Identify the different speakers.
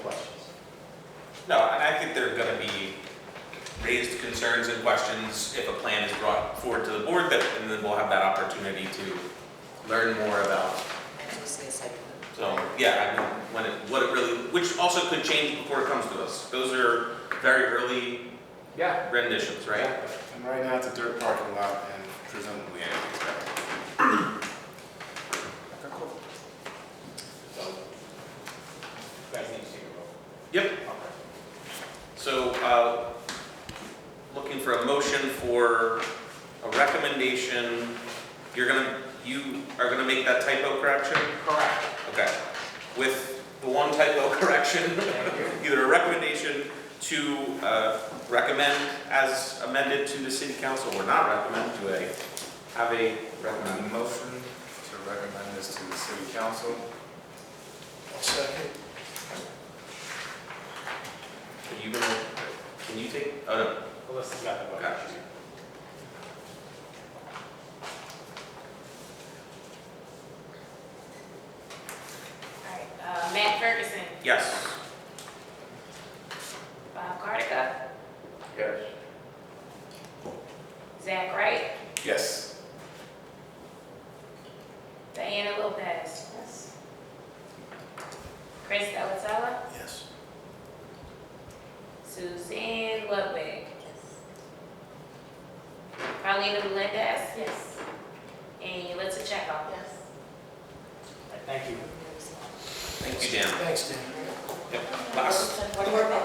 Speaker 1: No, and I think there are gonna be raised concerns and questions if a plan is brought forward to the board, that, and then we'll have that opportunity to learn more about.
Speaker 2: I was gonna say,
Speaker 1: So, yeah, I mean, when it, what it really, which also could change before it comes to us. Those are very early
Speaker 3: Yeah.
Speaker 1: renditions, right?
Speaker 4: And right now, it's a dirt parking lot and presumably anything's better.
Speaker 1: Yep. So, uh, looking for a motion for a recommendation. You're gonna, you are gonna make that typo correction?
Speaker 3: Correct.
Speaker 1: Okay. With the one typo correction,
Speaker 3: Thank you.
Speaker 1: either a recommendation to uh, recommend as amended to the city council, or not recommend to a, have a recommend.
Speaker 4: Recommend motion to recommend this to the city council.
Speaker 1: Are you gonna, can you take, oh no,
Speaker 3: Melissa's got the
Speaker 1: Gotcha.
Speaker 5: All right, uh, Matt Ferguson,
Speaker 1: yes.
Speaker 5: Bob Cardica,
Speaker 3: Yes.
Speaker 5: Zach Wright,
Speaker 4: Yes.
Speaker 5: Diana Lopez. Yes. Chris Delatella,
Speaker 4: Yes.
Speaker 5: Suzanne Ludwig,
Speaker 2: yes.
Speaker 5: Carlina Melendez,
Speaker 2: Yes.
Speaker 5: and Yulisa Chekhov.
Speaker 2: Yes.
Speaker 3: Thank you.
Speaker 1: Thank you, Dan.
Speaker 6: Thanks, Dan.
Speaker 1: Yep. Last
Speaker 2: What do you want?